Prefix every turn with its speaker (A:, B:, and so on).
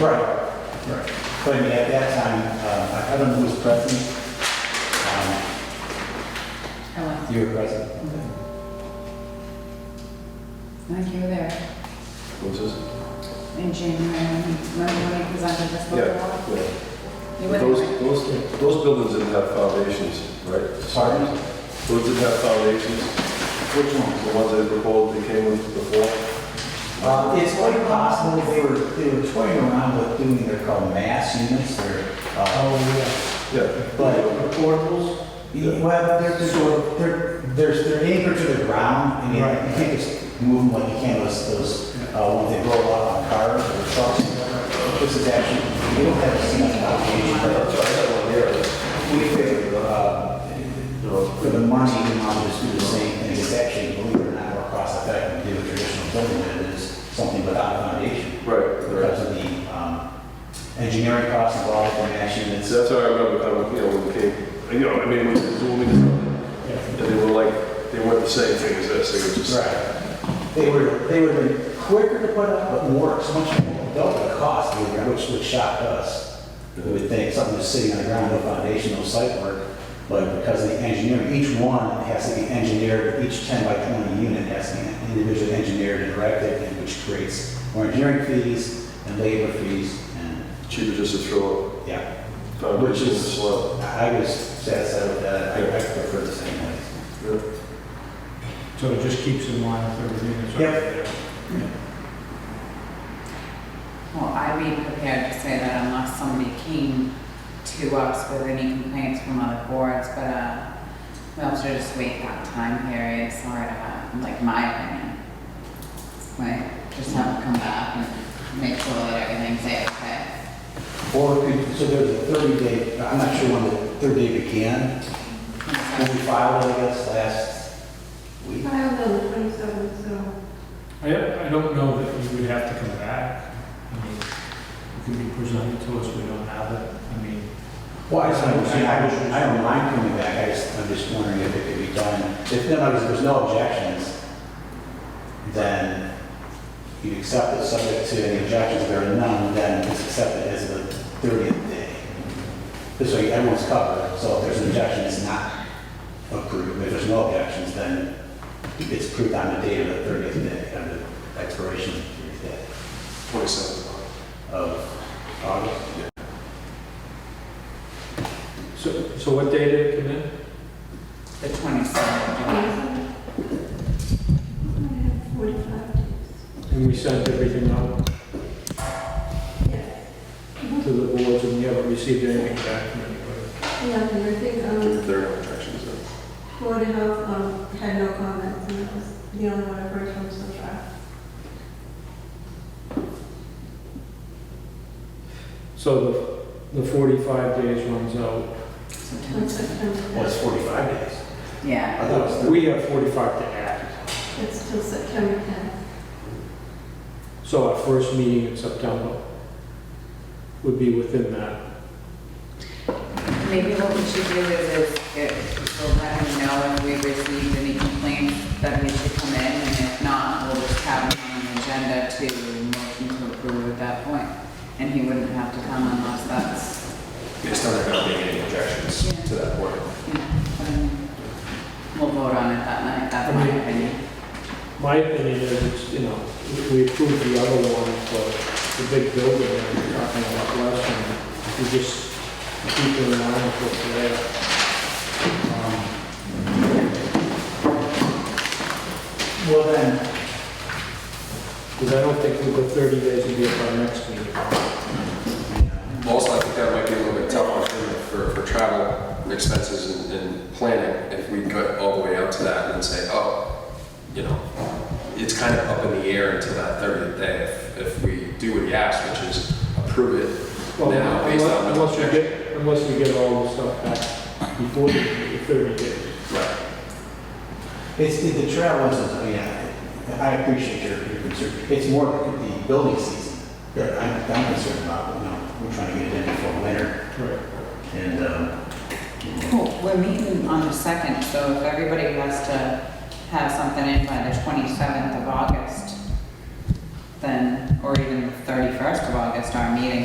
A: Right, right.
B: But I mean, at that time, um, I- I don't know who was present. Um,
C: I went,
B: You were present.
C: I think you were there
A: What's this?
C: in January, remember when we presented this
A: Yeah,
C: before?
A: yeah.
C: You were
A: Those,
C: there.
A: those, those buildings didn't have foundations, right?
B: Pardon?
A: Those didn't have foundations,
B: Which one?
A: the ones that were called, they came with before.
B: Uh, It's quite possible they were, they were toying around with doing, they're called mass units, they're, uh,
A: Yeah.
B: but
D: portables?
B: Yeah, Well, they're, they're sort of, they're, they're, they're anchored to the ground, I mean,
D: Right.
B: you can't just move them like you can those, those, uh, when they roll out on cars or trucks. This is actually, we don't have a cement foundation, but
A: I had one here.
B: we figure, uh, you know, for the money, we might just do the same thing, it's actually, believe it or not, more cost effective to do a traditional building than it is something without a foundation.
A: Right, right.
B: Because of the, um, engineering costs involved in actually, it's,
A: So that's how I remember kind of, you know, when we came, you know, I mean, when we were zooming in, and they were like, they weren't the same thing as this, they were just,
B: Right. They were, they would have been quicker to put up, but more, so much more, double the cost, we were- which would shock us. We would think something was sitting on the ground, no foundation, no site work, but because of the engineering, each one has to be engineered, each 10 by 20 unit has to be individually engineered and directed, and which creates more engineering fees and labor fees, and,
A: cheaper just to throw
B: yeah.
A: a foundation in the slab.
B: I I was satisfied with that, I I prefer the same way.
A: Yeah.
D: So it just keeps in line with everything that's.
B: Yep.
C: Well, I'd be prepared to say that unless somebody came to us with any complaints from other boards, but, uh, we also just wait that time period, sort of, like my opinion. Like, just have them come back and make sure that everything's okay.
B: Or, it could- so there's a 30-day, I'm not sure when the third day began, when we filed it, I guess, last week.
E: Filed on the twenty-seventh, so
D: I don't, I don't know that you would have to come back. I mean, it could be presented to us, we don't have it. I mean,
B: Well, I just, I was- I was- I don't mind coming back, I just, I'm just wondering if it could be done. If then, like, if there's no objections, then you accept it subject to any objections, there are none, then it's accepted as the 30th day. This way everyone's covered, so if there's an objection, it's not approved. If there's no objections, then it's approved on the date of the 30th day, on the expiration of the 30th day
A: Twenty-seven.
B: of August.
D: so, so what day did it come in?
C: The twenty-seventh,
E: twenty-seventh. I have forty-five days.
D: And we sent everything out
E: Yes.
D: to the boards and we haven't received anything back from anybody.
E: Yeah, and I think, um,
A: There are objections there.
E: Board of Health, um, had no comments, and that was the only one I've heard from so far.
D: So the, the 45 days runs out.
E: On
C: September,
B: Well, it's
E: September,
B: 45 days.
C: yeah.
B: I thought it was 30.
D: We have 45 to act.
E: it's till September tenth.
D: So our first meeting in September would be within that.
C: Maybe what we should do is, is we'll let him know if we receive any complaints that we should come in, and if not, we'll just have him on the agenda to motion to approve at that point. And he wouldn't have to come unless that's,
F: Based on there not being any objections to that point.
C: you know, what I mean. we'll vote on it that night, that's my opinion.
D: My opinion is, it's, you know, we approved the other one for the big building that we were talking about last time. We just keep it in line with what's there.
B: Um, Well, then,
D: Because I don't think we go 30 days would be at our next meeting.
F: Most likely, that might be a little bit tough on him for, for travel and expenses and, and planning, if we got all the way up to that and then say, oh, you know, it's kind of up in the air until that thirtieth day, if, if we do what he asked, which is approve it
D: Well,
F: now based on no
D: Unless we
F: objection.
D: get, unless we get all the stuff back before the 30 days.
F: Right.
B: it's, it- the travel is, oh, yeah, I appreciate your, your concern. It's more the building season that I'm, I'm concerned about, you know, we're trying to get it in before winter.
D: Right.
B: And, um,
C: Cool, we're meeting on the second, so if everybody has to have something in by the twenty-seventh of August, then or even the 31st of August, our meeting